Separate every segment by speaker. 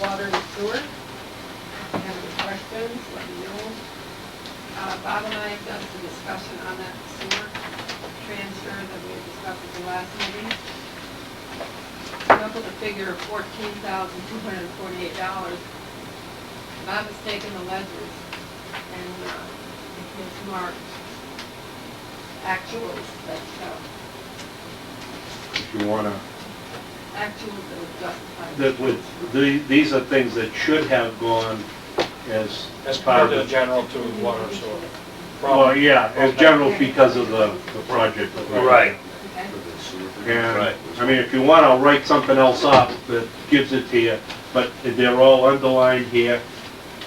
Speaker 1: water and sewer. If you have any questions, let me know. Uh, Bob and I have done some discussion on that sewer transfer that we had discussed at the last meeting. Come up with a figure of fourteen thousand two hundred and forty-eight dollars. If I'm mistaken, the ledgers and, uh, it's marked actuals, that's, uh,
Speaker 2: if you wanna,
Speaker 1: actuals that would justify.
Speaker 2: that would, the- these are things that should have gone as.
Speaker 3: As part of the general to water and sewer.
Speaker 2: Well, yeah, as general because of the, the project. that we're-
Speaker 4: Right.
Speaker 1: Okay?
Speaker 2: And, I mean, if you want, I'll write something else up that gives it to you, but they're all underlined here,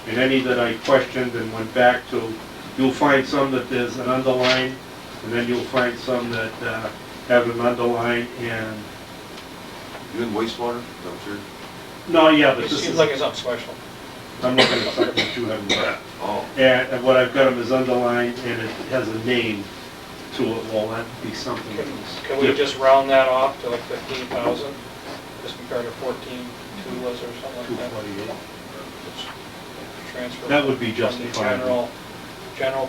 Speaker 2: and any that I questioned and went back to, you'll find some that there's an underline, and then you'll find some that uh, have an underline, and,
Speaker 5: You in wastewater, dumpster?
Speaker 2: no, yeah, but
Speaker 3: It
Speaker 2: this
Speaker 3: seems
Speaker 2: is,
Speaker 3: like it's something special.
Speaker 2: I'm looking at something that you haven't got.
Speaker 5: Oh,
Speaker 2: And and what I've got them is underlined, and it has a name to it, well, that'd be something
Speaker 3: Can
Speaker 2: else.
Speaker 3: can we just round that off to like 15,000, just compared to 14, two was or something like that?
Speaker 2: 248.
Speaker 3: Transfer
Speaker 2: That would be
Speaker 3: from the
Speaker 2: justifiable.
Speaker 3: General, general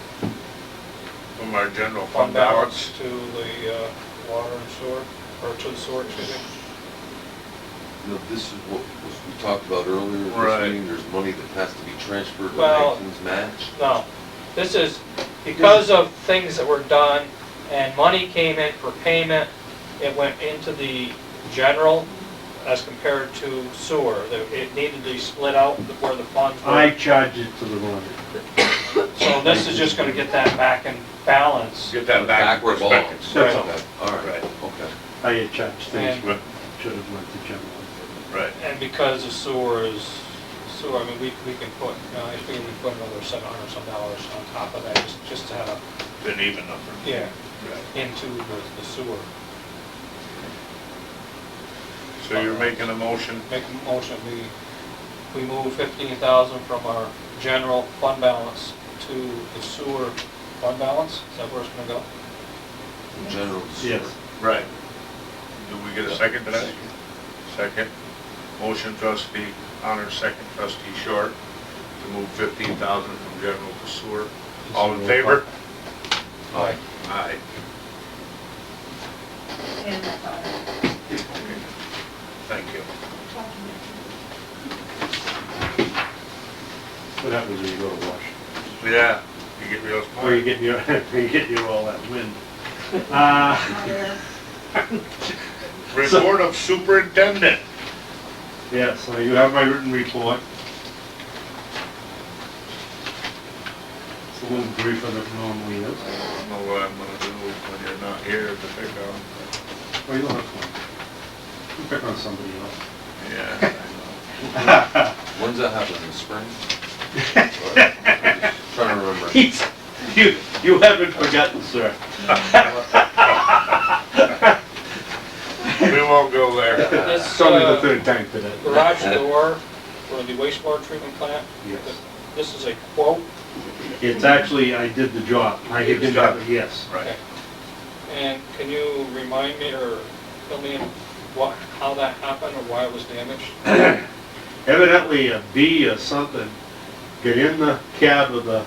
Speaker 4: From our general
Speaker 3: fund balance to the uh, water and sewer, or to the sewer, excuse me.
Speaker 5: no, this is what was, we talked about earlier, in this
Speaker 4: Right.
Speaker 5: meeting, there's money that has to be transferred to
Speaker 3: Well-
Speaker 5: Nathan's match.
Speaker 3: No, this is because of things that were done and money came in for payment, it went into the general as compared to sewer. That It needed to be split out where the funds
Speaker 2: I
Speaker 3: were.
Speaker 2: charge it to the runner.
Speaker 3: So this is just gonna get that back in balance.
Speaker 4: Get that back in
Speaker 5: Backward ball.
Speaker 4: perspective.
Speaker 2: That's all.
Speaker 5: Oh, Okay, All right,
Speaker 4: Right.
Speaker 5: okay.
Speaker 2: I had charged things,
Speaker 3: And-
Speaker 2: but should have went to general.
Speaker 4: Right.
Speaker 3: And because of sewer is, sewer, I mean, we, we can put, you know, I think we put another seven hundred some dollars on top of that, just, just to have a,
Speaker 4: Been even number.
Speaker 3: yeah,
Speaker 4: Right.
Speaker 3: into the the sewer.
Speaker 4: So you're making a motion?
Speaker 3: Make a motion, we, we move fifteen thousand from our general fund balance to the sewer fund balance, is that where it's gonna go?
Speaker 5: In General sewer.
Speaker 2: Yes.
Speaker 4: Right. Do we get a second to that? Second. Motion trustee Honor, second trustee Short, to move fifteen thousand from general to sewer. All in favor?
Speaker 3: Aye.
Speaker 4: Aye.
Speaker 1: And that's all.
Speaker 4: Thank you.
Speaker 2: What happens when you go to Washington?
Speaker 4: Yeah, you get real smart.
Speaker 2: Or you get your, you get your all that wind. Uh,
Speaker 1: Not there.
Speaker 4: Report of superintendent.
Speaker 2: yeah, so you have my written report. It's a little briefer than normally is.
Speaker 4: I don't know what I'm gonna do when you're not here to pick on.
Speaker 2: Or Oh, you don't have one. You pick on somebody else.
Speaker 4: Yeah, I know.
Speaker 5: When's that happen, in the spring? Sorry. Trying to remember.
Speaker 2: He's, you, you haven't forgotten, sir.
Speaker 4: We won't go there.
Speaker 3: This,
Speaker 2: It's only the
Speaker 3: uh,
Speaker 2: third time today.
Speaker 3: garage door for the wastewater treatment plant,
Speaker 2: Yes.
Speaker 3: this is a quote,
Speaker 2: It's actually, I did the job. I
Speaker 4: You did the
Speaker 2: did not
Speaker 4: job.
Speaker 2: yes.
Speaker 4: Right.
Speaker 3: and can you remind me or fill me in what, how that happened or why it was damaged?
Speaker 2: evidently a bee or something got in the cab of the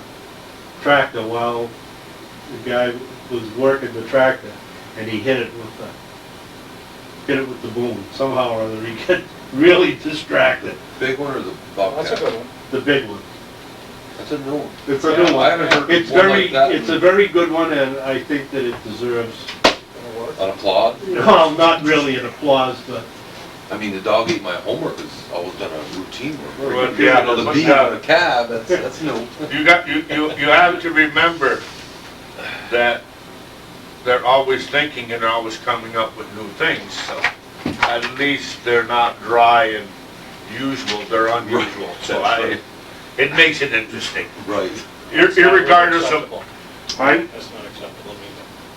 Speaker 2: tractor while the guy was working the tractor, and he hit it with the, hit it with the boom. Somehow or other, he got really distracted,
Speaker 5: Big one or the
Speaker 3: Oh, That's a
Speaker 5: Bobcat?
Speaker 3: good one.
Speaker 2: the big one.
Speaker 5: That's a new one.
Speaker 2: It's a
Speaker 3: Yeah,
Speaker 2: new
Speaker 5: I
Speaker 2: one.
Speaker 5: haven't heard
Speaker 2: It's
Speaker 5: one
Speaker 2: very,
Speaker 5: like that.
Speaker 2: it's a very good one, and I think that it deserves,
Speaker 3: Gonna work.
Speaker 5: An applaud?
Speaker 2: well, not really an applause, but
Speaker 5: I mean, the dog ate my homework, it's always done a routine work.
Speaker 2: Well,
Speaker 5: You
Speaker 4: yeah,
Speaker 5: know, the
Speaker 4: but
Speaker 5: bee in
Speaker 4: that-
Speaker 5: the cab, that's, that's new.
Speaker 4: You got, you, you, you have to remember that they're always thinking and always coming up with new things, so at least they're not dry and usual, they're unusual, so
Speaker 5: That's
Speaker 4: I,
Speaker 5: right.
Speaker 4: it makes it interesting.
Speaker 5: Right.
Speaker 4: Ir-
Speaker 3: That's not really
Speaker 4: Irregardless of,
Speaker 3: acceptable.
Speaker 2: I,
Speaker 3: That's not acceptable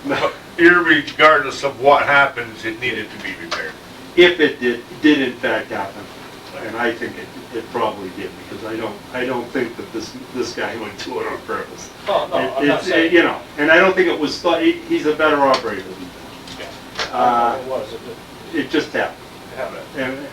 Speaker 3: either.
Speaker 4: irregardless of what happens, it needed to be repaired.
Speaker 2: if it did, did in fact happen, and I think it, it probably did, because I don't, I don't think that this, this guy would do it on purpose.
Speaker 3: Oh, no,
Speaker 2: It-
Speaker 3: I'm not
Speaker 2: It's, it-
Speaker 3: saying.
Speaker 2: you know, and I don't think it was, thought- he- he's a better operator than
Speaker 3: Yeah.
Speaker 2: that. Uh,
Speaker 3: It was, it did
Speaker 2: It just happened,
Speaker 3: have it.
Speaker 2: and